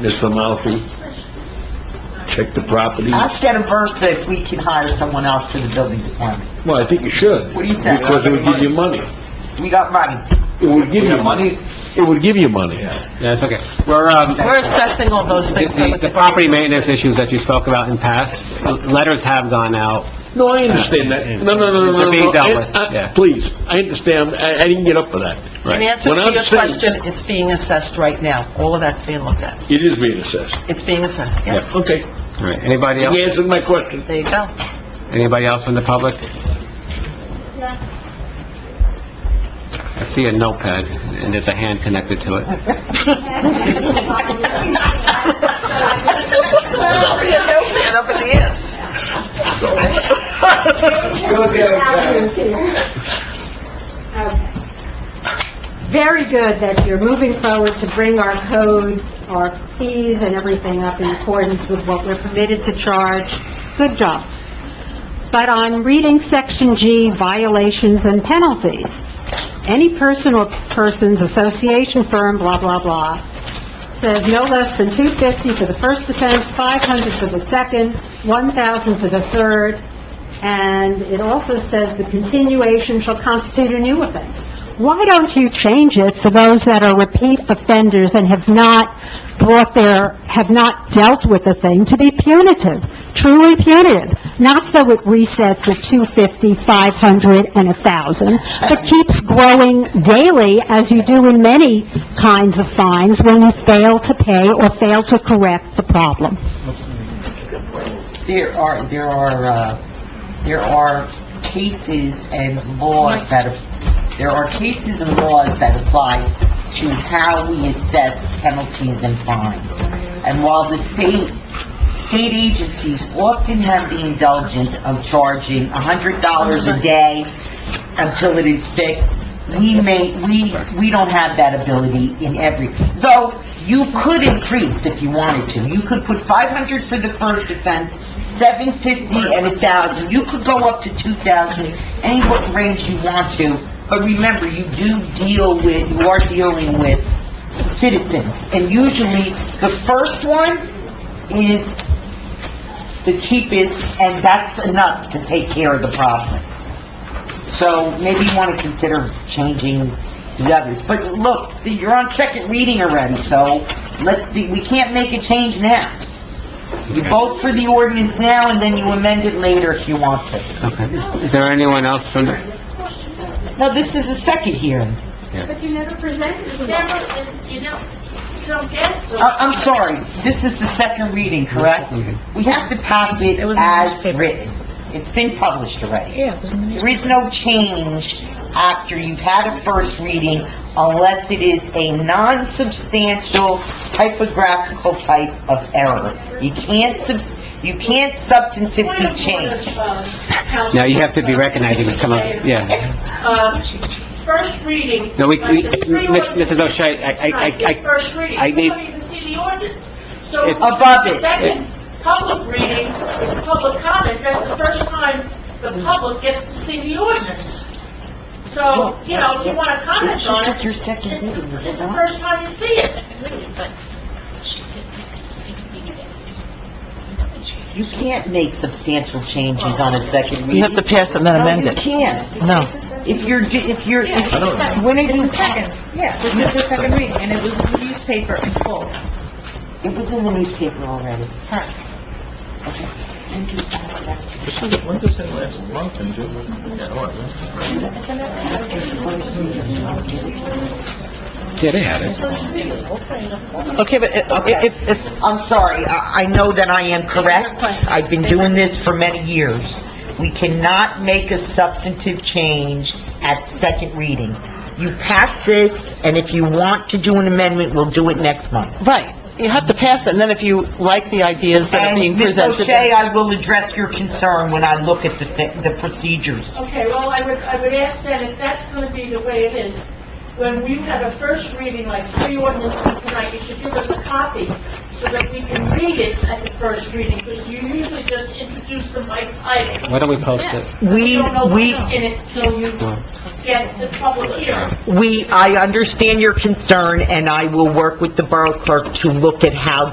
Ms. Amalfi. Check the property. Ask Adam first if we can hire someone else to the building department. Well, I think you should. What do you think? Because it would give you money. We got money. It would give We you have money. money? It would give you money. That's okay. We're, um, We're assessing all those things. the the property maintenance issues that you spoke about in past, letters have gone out. No, I understand that. No, no, no, no, no. They're being no. dealt I- with, I- yeah. Please, I understand. I, I didn't get up for that. In answer When to I'm your sitting- question, it's being assessed right now. All of that's being looked at. It is being assessed. It's being assessed, yeah. Okay. All right, anybody You else, answered my question. There you go. anybody else from the public? I see a notepad, and there's a hand connected to it. And up at the end. Very good that you're moving forward to bring our code, our fees and everything up in accordance with what we're permitted to charge. Good job. But on reading section G, violations and penalties, any person or persons, association, firm, blah, blah, blah, says no less than 250 for the first offense, 500 for the second, 1,000 for the third, and it also says the continuation shall constitute a new offense. Why don't you change it for those that are repeat offenders and have not brought their, have not dealt with the thing to be punitive, truly punitive? Not so it resets at 250, 500, and 1,000, but keeps growing daily as you do in many kinds of fines when you fail to pay or fail to correct the problem. There are, there are, uh, there are cases and laws that, there are cases and laws that apply to how we assess penalties and fines. And while the state, state agencies often have the indulgence of charging hundred dollars a day until it is fixed, we may, we, we don't have that ability in every, though you could increase if you wanted to. You could put 500 for the first offense, 750 and 1,000. You could go up to 2,000, any what range you want to. But remember, you do deal with, you are dealing with citizens. And usually, the first one is the cheapest, and that's enough to take care of the problem. So maybe you want to consider changing the others. But look, you're on second reading already, so let, we can't make a change now. You vote for the ordinance now, and then you amend it later if you want to. Okay, is there anyone else from, the- No, this is a second hearing. But you never presented It's never, it's- you don't, you don't get it. I, Uh, I'm sorry, this is the second reading, correct? We have to pass it as written. It's been published already. There is no change after you've had a first reading unless it is a non-substantial typographical type of error. You can't subs, you can't substantively change. now you have to be recognized, you just come up, yeah. Uh, First reading. No, we, we, like the three Miss- ordinances Mrs. O'Shea, I, I, tonight, I- the First reading. I need- Nobody even see the ordinance. So It's- Above the it. Second public reading is the public comment. That's the first time the public gets to see the ordinance. So, you know, if you want to comment This on is it, your second it's reading, is it's it the not? first time you see it. You can't make substantial changes on a second reading. You have to pass it and then amend No, you it. can't. No. If you're, do- if you're, if- I don't know. when are It's you, the second, yes, this is the second reading, and it was in the newspaper in full. it was in the newspaper already. yeah, they had it. Okay, but uh, it- it, it, it, I'm sorry, I I know that I am correct. I've been doing this for many years. We cannot make a substantive change at second reading. You pass this, and if you want to do an amendment, we'll do it next month. right, you have to pass it, and then if you like the ideas that are being And Ms. presented... O'Shea, I will address your concern when I look at the thi- the procedures. Okay, well, I would, I would ask that if that's going to be the way it is, when we have a first reading, like three ordinances tonight, you should give us a copy so that we can read it at the first reading, because you usually just introduce them by title. Why don't we post it? Yes. We- You don't know what's we- in it till you get the public hearing. We, I understand your concern, and I will work with the Borough Clerk to look at how